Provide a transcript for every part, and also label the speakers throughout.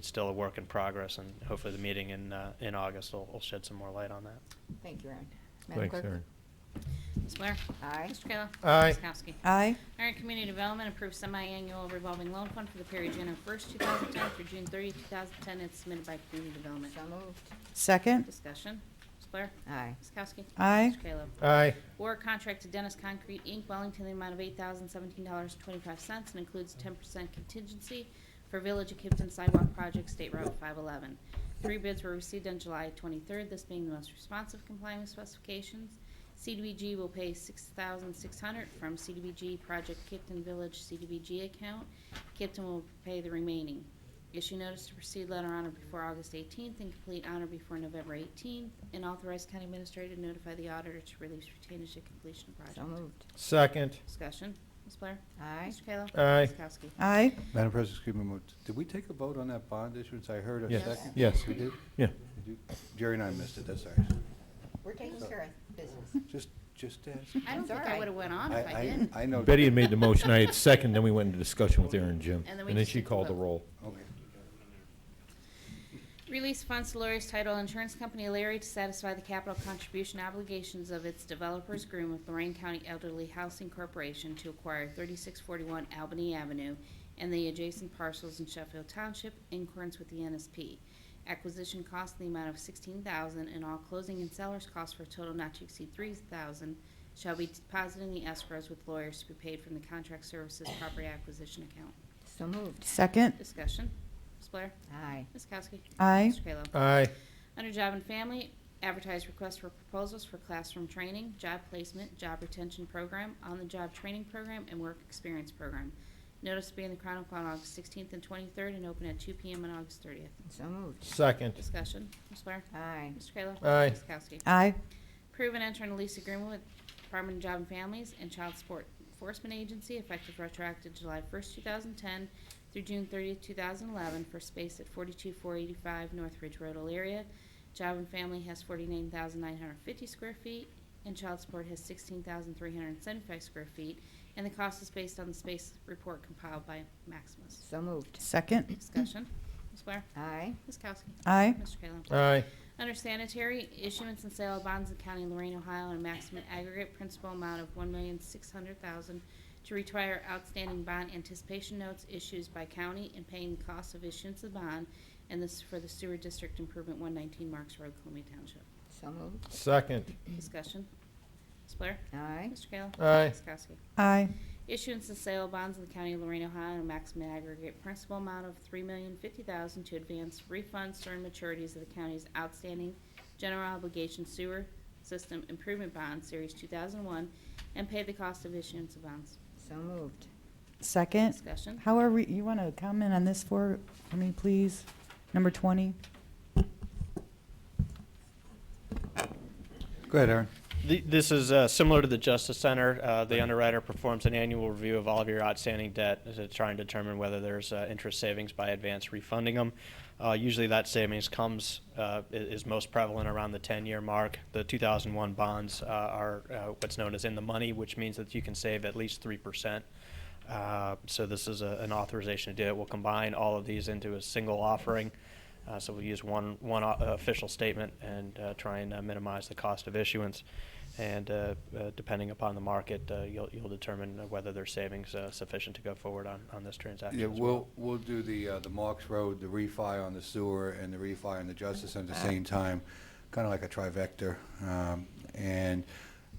Speaker 1: it's still a work in progress, and hopefully the meeting in, uh, in August will, will shed some more light on that.
Speaker 2: Thank you, Aaron. Madam
Speaker 3: Thanks,
Speaker 2: Clerk?
Speaker 3: Aaron.
Speaker 4: Ms. Blair?
Speaker 2: Aye.
Speaker 4: Mr. Kayla?
Speaker 3: Aye.
Speaker 4: Ms. Kowski?
Speaker 5: Aye.
Speaker 4: All right, Community Development approves semi-annual revolving loan fund for the period January 1st, 2010 through June 30th, 2010, as submitted by Community Development.
Speaker 2: So moved.
Speaker 5: Second.
Speaker 4: Discussion, Ms. Blair?
Speaker 2: Aye.
Speaker 4: Ms. Kowski?
Speaker 5: Aye.
Speaker 4: Mr. Kayla?
Speaker 3: Aye.
Speaker 4: Award contract to Dennis Concrete, Inc., Wellington, in the amount of $8,017.25 and includes 10% contingency for Village of Kipton Sidewalk Project, State Route 511. Three bids were received on July 23rd, this being the most responsive complying with specifications. CDBG will pay $6,600 from CDBG Project Kipton Village CDBG account. Kipton will pay the remaining. Issue notice to proceed letter honor before August 18th and complete honor before November 18th, and authorize county administrator to notify the auditor to release retainage at completion of
Speaker 2: So
Speaker 4: project.
Speaker 2: moved.
Speaker 3: Second.
Speaker 4: Discussion, Ms. Blair?
Speaker 2: Aye.
Speaker 4: Mr. Kayla?
Speaker 3: Aye.
Speaker 4: Ms. Kowski?
Speaker 5: Aye.
Speaker 6: Madam President, excuse me, a moment. did we take a vote on that bond issuance? I heard a
Speaker 3: Yes.
Speaker 6: second.
Speaker 3: Yes.
Speaker 6: We did?
Speaker 3: Yeah.
Speaker 6: We did? Jerry and I missed it, that's all right.
Speaker 2: We're taking care of business.
Speaker 6: Just, just ask.
Speaker 4: I don't
Speaker 2: That's all
Speaker 4: think I
Speaker 2: right.
Speaker 4: would've went on if I didn't.
Speaker 6: I know.
Speaker 3: Betty had made the motion, I had second, then we went into discussion with Aaron and Jim.
Speaker 4: And then we
Speaker 3: And then
Speaker 4: just
Speaker 3: she
Speaker 4: did the
Speaker 3: called the
Speaker 4: vote.
Speaker 3: roll.
Speaker 6: Okay.
Speaker 4: Release funds to Lori's Title Insurance Company, Larry, to satisfy the capital contribution obligations of its developers agreement with Lorraine County Elderly Housing Corporation to acquire 3641 Albany Avenue and the adjacent parcels in Sheffield Township in accordance with the NSP. Acquisition cost in the amount of 16000 and all closing and seller's costs for a total not to exceed 3000 shall be deposited in the escrows with lawyers to be paid from the contract services property acquisition account.
Speaker 2: So moved.
Speaker 5: Second.
Speaker 4: Discussion. Ms. Blair?
Speaker 2: Aye.
Speaker 4: Ms. Kowski?
Speaker 5: Aye.
Speaker 4: Mr. Kayla?
Speaker 3: Aye.
Speaker 4: Under Job and Family, advertise requests for proposals for classroom training, job placement, job retention program, on-the-job training program, and work experience program. Notice to be in the Chronicle on August 16th and 23rd and open at 2 PM on August 30th.
Speaker 2: So moved.
Speaker 3: Second.
Speaker 4: Discussion, Ms. Blair?
Speaker 2: Aye.
Speaker 4: Mr. Kayla?
Speaker 3: Aye.
Speaker 4: Ms. Kowski?
Speaker 5: Aye.
Speaker 4: Approve and enter a lease agreement with Department of Job and Families and Child Support Enforcement Agency effective retroactive July 1st, 2010 through June 30th, 2011 for space at 42485 North Ridge Road, Elyria. Job and Family has 49,950 square feet and Child Support has 16,375 square feet, and the cost is based on the space report compiled by Maximus.
Speaker 2: So moved.
Speaker 5: Second.
Speaker 4: Discussion. Ms. Blair?
Speaker 2: Aye.
Speaker 4: Ms. Kowski?
Speaker 5: Aye.
Speaker 4: Mr. Kayla?
Speaker 3: Aye.
Speaker 4: Under sanitary, issuance and sale of bonds in the County of Lorraine, Ohio, in a maximum aggregate principal amount of one million six hundred thousand to retire outstanding bond anticipation notes issues by county and paying the cost of issuance of bond, and this is for the sewer district improvement one nineteen Marks Road, Columbia Township.
Speaker 2: So moved.
Speaker 3: Second.
Speaker 4: Discussion. Ms. Blair?
Speaker 2: Aye.
Speaker 4: Mr. Kayla?
Speaker 3: Aye.
Speaker 4: Ms. Kowski?
Speaker 5: Aye.
Speaker 4: Issuance and sale of bonds in the County of Lorraine, Ohio, in a maximum aggregate principal amount of three million fifty thousand to advance refunds during maturities of the county's outstanding general obligation sewer system improvement bond, Series two thousand one, and pay the cost of issuance of bonds.
Speaker 2: So moved.
Speaker 5: Second.
Speaker 4: Discussion?
Speaker 5: How are we, you want to comment on this for, for me, please? Number 20?
Speaker 6: Go ahead, Aaron.
Speaker 1: The- This is uh, similar to the Justice Center. Uh, The underwriter performs an annual review of all of your outstanding debt to try and determine whether there's uh, interest savings by advance refunding them. Uh, Usually that savings comes, uh, i- is most prevalent around the 10-year mark. The 2001 bonds uh, are uh, what's known as in the money, which means that you can save at least 3%. Uh, So this is a- an authorization to do it. We'll combine all of these into a single offering. Uh, So we use one, one o- official statement and uh, try and uh, minimize the cost of issuance. And uh, uh, depending upon the market, uh, you'll, you'll determine uh, whether there's savings uh, sufficient to go forward on, on this transaction
Speaker 6: Yeah,
Speaker 1: as well.
Speaker 6: we'll, we'll do the, uh, the Marks Road, the refi on the sewer, and the refi on the Justice Center at the same time, kind of like a trivector. Um, And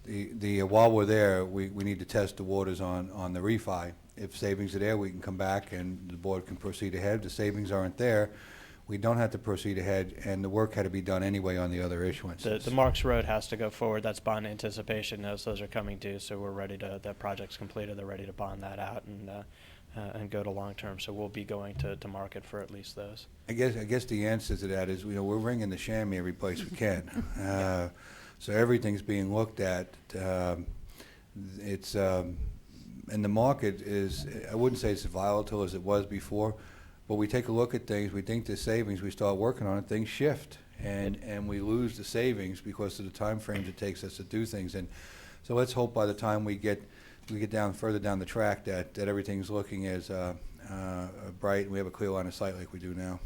Speaker 6: the, the, uh, while we're there, we, we need to test the waters on, on the refi. If savings are there, we can come back and the board can proceed ahead. If the savings aren't there, we don't have to proceed ahead, and the work had to be done anyway on the other issuances.
Speaker 1: The, the Marks Road has to go forward. That's bond anticipation. Those, those are coming due, so we're ready to, that project's completed. They're ready to bond that out and, uh, uh, and go to long-term. So we'll be going to, to market for at least those.
Speaker 6: I guess, I guess the answer to that is, you know, we're ringing the chamois every place we can. Uh, So everything's being looked at. Um, It's, um, and the market is, I wouldn't say it's volatile as it was before, but we take a look at things, we think there's savings, we start working on it, things shift. And, and we lose the savings because of the timeframes it takes us to do things. And so let's hope by the time we get, we get down, further down the track, that, that everything's looking as uh, uh, bright, and we have a clear line of sight like we do now.